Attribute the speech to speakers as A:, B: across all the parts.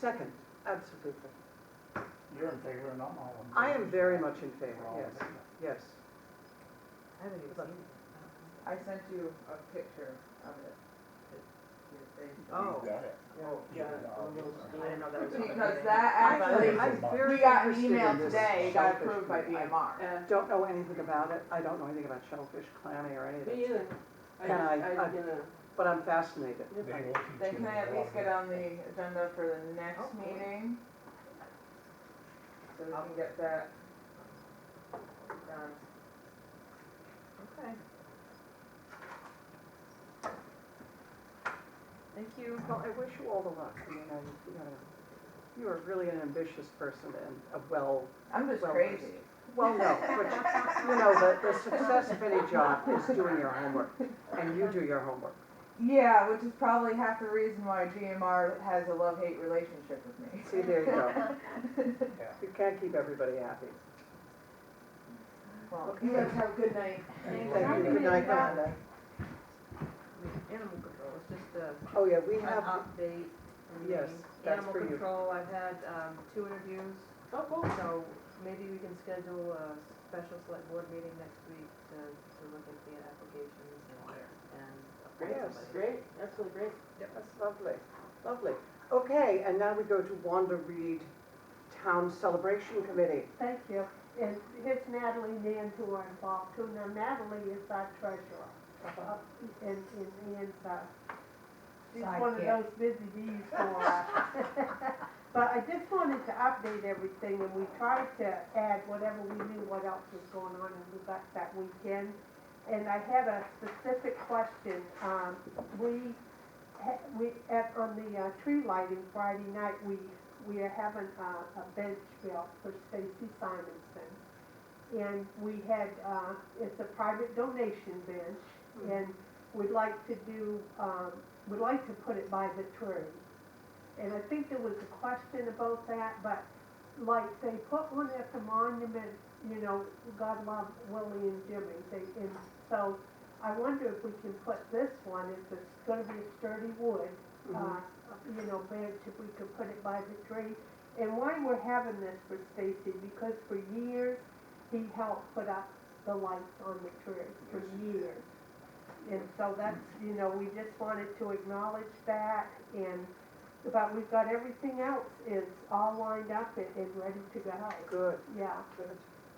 A: Second, absolutely.
B: You're in favor and I'm all in favor.
A: I am very much in
B: We're
A: favor,
B: all in
A: yes,
B: favor.
A: yes.
C: I haven't even seen it.
D: I sent you a picture of it.
C: Oh.
B: You got it.
C: Oh,
B: Yeah.
C: I didn't know that was. on the
D: Because
C: thing.
D: that
A: Actually,
D: actually,
A: I'm very
D: we got an
A: interested
D: email
A: in this
D: today, it got
A: shellfish
D: approved by
A: thing. I
D: DMR.
E: Yeah,
A: Don't know anything about it, I don't know anything about shellfish, clammy or anything,
E: me either. I,
A: Can I-
E: I,
A: I- but I'm fascinated.
B: They will teach you.
D: Then can I at
B: in
D: least get on the agenda for the
C: Oh,
D: next
C: boy.
D: meeting? So we can get that done.
C: Okay.
A: Thank you. Well, I wish you all the luck, I mean, I, you know, you are really an ambitious person and a well,
D: I'm just
A: Well,
D: crazy.
A: well, no, but you know, the, the success of any job is doing your homework, and you do your homework.
D: Yeah, which is probably half the reason why DMR has a love-hate relationship with me.
A: See, there you go.
B: Yeah.
A: You can't keep everybody happy.
D: Well, you guys have a good night.
B: Thank
A: Thank you,
B: you.
A: good night, Rhonda.
C: Animal control, it's just a,
A: Oh, yeah, we
C: an
A: have,
C: update. on the
A: Yes, that's for you.
C: Animal control, I've had, um, two interviews,
E: Oh, cool.
C: so maybe we can schedule a special select board meeting next week to, to look at the applications and appoint
A: Yes,
C: somebody.
E: Great, absolutely great.
A: That's lovely, lovely. Okay, and now we go to Wanda Reed Town Celebration Committee.
F: Thank you. And here's Natalie Nantor involved too. Now Natalie is our treasurer up in, in Ian's, uh, she's one of
D: Sidekick.
F: those busy bees for us. But I just wanted to update everything and we tried to add whatever we knew what else was going on in Lubec that weekend. And I had a specific question. Um, we, ha- we, at, on the uh, tree lighting Friday night, we we are having a, a bench built for Stacy Simonson. And we had, uh, it's a private donation bench, and we'd like to do, um, we'd like to put it by the tree. And I think there was a question about that, but like, they put one at the monument, you know, God love Willie and Jimmy, they, and so I wonder if we can put this one, if it's gonna be sturdy wood,
A: Mm-hmm.
F: uh, you know, bench, if we could put it by the tree. And why we're having this for Stacy, because for years, he helped put up the lights on the tree, for years. And so that's, you know, we just wanted to acknowledge that, and, but we've got everything else is all lined up and, and ready to go.
A: Good,
F: Yeah,
A: good.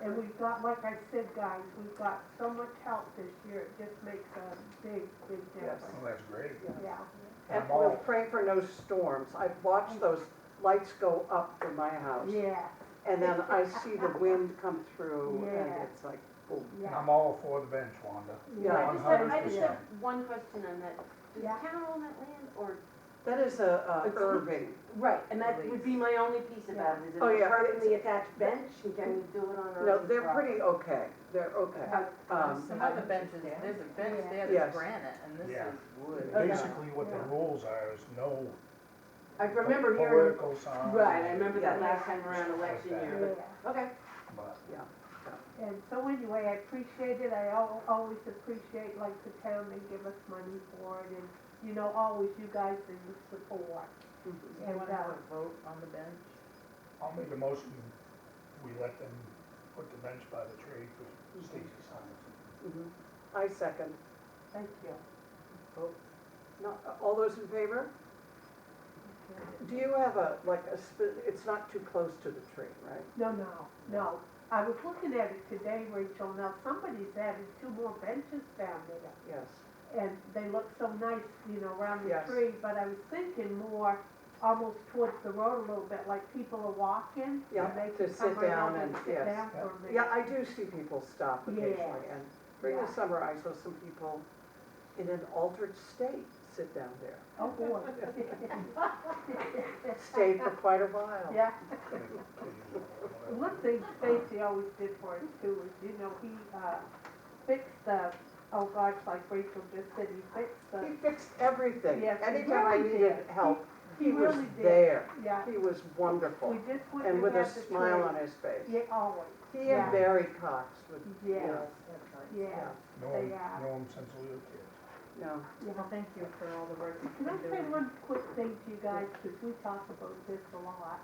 F: and we've got, like I said, guys, we've got so much help this year, it just makes a big, big
A: Yes.
F: difference.
B: Well, Oh, that's great.
F: Yeah.
A: And
B: I'm
A: we'll
B: all,
A: pray for no storms. I've watched those lights go up from my house.
F: Yeah,
A: And then I see the wind come through
F: Yeah.
A: and it's like, boom.
B: and
F: yeah.
B: I'm all for the bench, Wanda.
E: I
A: Yeah.
E: just have, I just
B: 100%.
E: have one question on that. Does
F: Yeah.
E: town own that land or?
A: That is a,
E: It's-
A: a Irving.
E: Right, and that would be my only piece about it. Is it
A: Oh, yeah.
E: permanently attached bench? Can we do it on our?
A: No,
E: own
A: they're
E: property?
A: pretty okay. They're okay.
E: Uh,
A: Um,
C: Some other benches, there's a bench there
A: Yes.
C: that's granite and this
B: Yeah.
C: is wood.
E: Okay.
B: Basically, what the
F: Yeah.
B: rules are is no
E: I remember hearing,
B: political signs.
E: right, I remember that
F: Yeah.
E: last time around election year.
F: Yeah.
E: but- Okay.
B: But
F: And so anyway, I appreciate it, I al- always appreciate like the town, they give us money for it, and, you know, always you guys and the support. uh,
A: mhm.
C: Do you wanna have a vote on the bench?
B: I'll make a motion, we let them put the bench by the tree for Stacy Simonson.
A: Mhm. I second.
F: Thank you.
A: No, uh, all those in favor? Do you have a, like, a, sp- it's not too close to the tree, right?
F: No, no, no, I was looking at it today, Rachel, now somebody's added two more benches down there.
A: Yes.
F: and they look so nice, you know, around the
A: Yes.
F: tree, but I was thinking more almost towards the road a little bit, like people are walking,
A: Yeah,
F: and they
A: to
F: can
A: sit
F: come right
A: down
F: out and
A: and-
F: sit
A: yes.
F: down for a minute.
A: Yeah, I do see people stop occasionally,
F: Yes.
A: and during the
F: Yeah.
A: summer, I saw some people in an altered state sit down there.
F: Oh, boy.
A: Stayed for quite a while.
F: Yeah,
B: Whatever.
F: one thing Stacy always did for us too is, you know, he, uh, fixed the, oh gosh, like Rachel just said, he fixed
A: He
F: the,
A: fixed everything.
F: Yes, he
A: Anytime I
F: really
A: needed
F: did.
A: help,
F: he
A: he was
F: really did,
A: there.
F: yeah,
A: He was
F: we
A: wonderful,
F: just
A: and
F: wouldn't
A: with
F: have
A: a
F: had the tree.
A: smile on his face.
F: Yeah, always,
A: He
F: Yeah.
A: and Barry Cox would,
F: yes,
A: yeah.
F: yes,
B: Know
F: they
B: him,
F: are.
B: know him since we were kids.
A: no.
C: Well, thank you for all the work that
F: Can I
C: you've been
F: say
C: doing.
F: one quick thing to you guys, because we talk about this a lot?